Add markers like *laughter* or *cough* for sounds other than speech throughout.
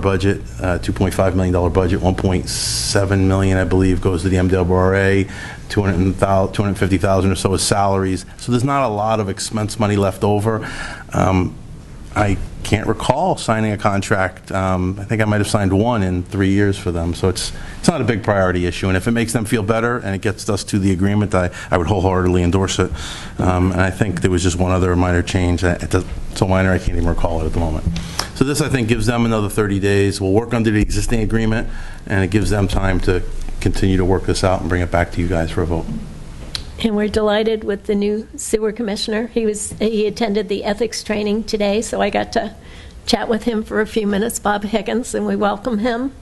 budget, uh, $2.5 million dollar budget, 1.7 million, I believe, goes to the MWRA, 200,000 250,000 or so is salaries. So there's not a lot of expense money left over. Um, I can't recall signing a contract. Um, I think I might have signed one in three years for them, so it's, it's not a big priority issue. And if it makes them feel better and it gets us to the agreement, I, I would wholeheartedly endorse it. Um, And I think there was just one other minor change, that- it does- it's so minor I can't even recall it at the moment. So this, I think, gives them another 30 days. We'll work under the existing agreement, and it gives them time to continue to work this out and bring it back to you guys for a vote. And we're delighted with the new sewer commissioner. He was, he attended the ethics training today, so I got to chat with him for a few minutes, Bob Higgins, and we welcome him.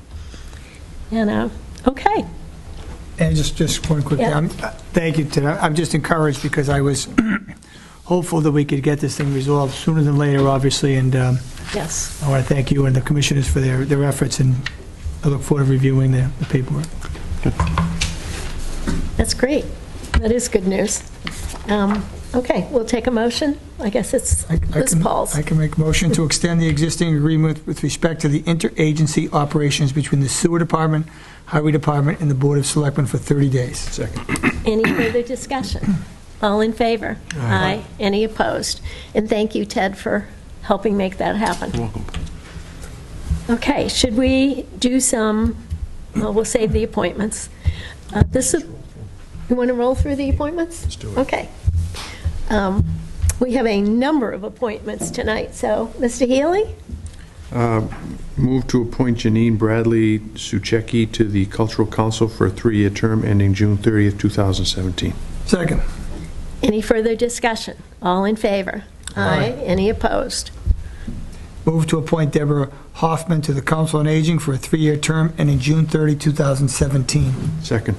And, uh, okay, And just, just one quick, thing. Yeah. I'm- thank you, Ted. I'm just encouraged because I was *clears throat* hopeful that we could get this thing resolved sooner than later, obviously, and um, yes. I want to thank you and the commissioners for their, their efforts, and I look forward to reviewing the the paperwork. That's great. That is good news. Um, Okay, we'll take a motion. I guess it's I- I Liz can- Paul's. I can make a motion to extend the existing agreement with respect to the interagency operations between the sewer department, highway department, and the board of selectmen for 30 days. Second. Any further discussion? All in favor? Aye. Any opposed? And thank you, Ted, for helping make that happen. welcome. Okay, should we do some, well, we'll save the appointments. Uh, This is, you want to roll through the appointments? Let's do it. Okay. Um, We have a number of appointments tonight, so, Mr. Healy? Move to appoint Janine Bradley Suchecki to the Cultural Council for a three-year term ending June 30th, 2017. Second. Any further discussion? All in favor? Aye. Any opposed? Move to appoint Deborah Hoffman to the Council on Aging for a three-year term ending June 30, 2017. Second.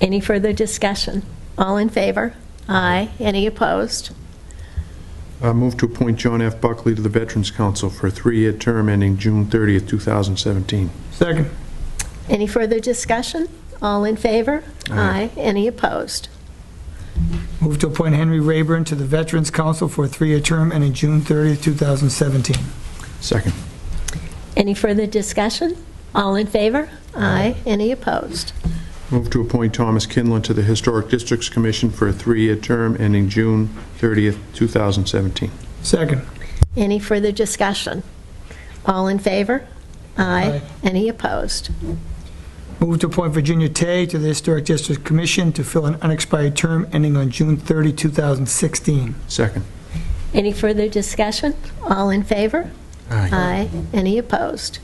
Any further discussion? All in favor? Aye. Any opposed? Uh, Move to appoint John F. Buckley to the Veterans Council for a three-year term ending June 30th, 2017. Second. Any further discussion? All in favor? Aye. Any opposed? Move to appoint Henry Rayburn to the Veterans Council for a three-year term ending June 30, 2017. Second. Any further discussion? All in favor? Aye. Any opposed? Move to appoint Thomas Kinlan to the Historic Districts Commission for a three-year term ending June 30th, 2017. Second. Any further discussion? All in favor? Aye. Aye. Any opposed? Move to appoint Virginia Tay to the Historic District Commission to fill an unexpired term ending on June 30, 2016. Second. Any further discussion? All in favor? Aye. Any opposed?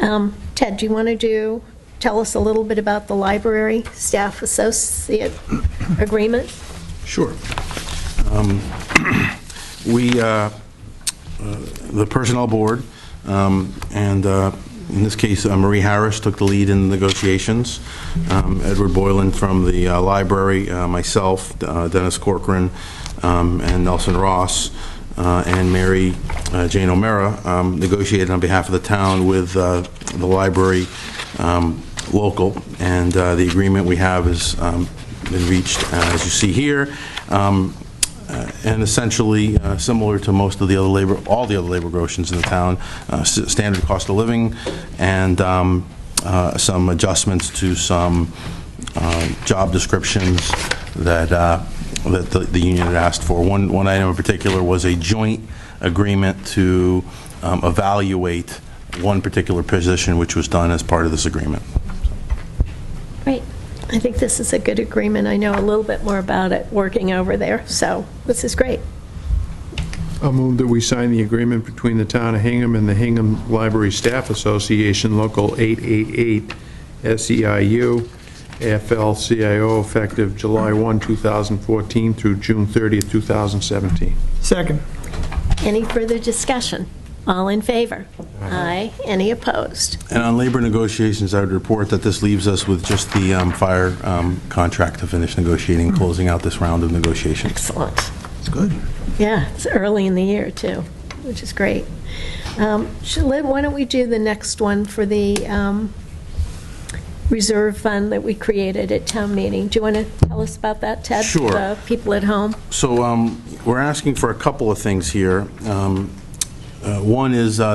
Um, Ted, do you want to do, tell us a little bit about the library staff associate agreement? Sure. Um, We, uh, uh, the Personnel Board, um, and uh, in this case, uh, Marie Harris took the lead in the negotiations, Um, Edward Boylan from the uh, library, uh, myself, uh, Dennis Corcoran, um, and Nelson Ross, uh, and Mary uh, Jane O'Meara um, negotiated on behalf of the town with uh, the library um, local, and uh, the agreement we have is um, been reached, uh, as you see here. Um, uh, And essentially, uh, similar to most of the other labor, all the other labor grotions in the town, uh, s- standard cost of living and um, uh, some adjustments to some uh, job descriptions that, uh, that the- the union had asked for. One, one item in particular was a joint agreement to um, evaluate one particular position, which was done as part of this agreement. Great. I think this is a good agreement. I know a little bit more about it working over there, so this is great. I'll move that we sign the agreement between the town of Hingham and the Hingham Library Staff Association, Local 888, E SEIU, AFL-CIO, effective July 1, 2014 through June 30, 2017. Second. Any further discussion? All in favor? Aye. Any opposed? And on labor negotiations, I would report that this leaves us with just the um, fire um, contract to finish negotiating, closing out this round of negotiations. Excellent. It's good. Yeah, it's early in the year, too, which is great. Um, should- Lynn, why don't we do the next one for the um, reserve fund that we created at town meeting? Do you want to tell us about that, Ted? Sure. The people at home? So um, we're asking for a couple of things here. Um, uh, One is uh,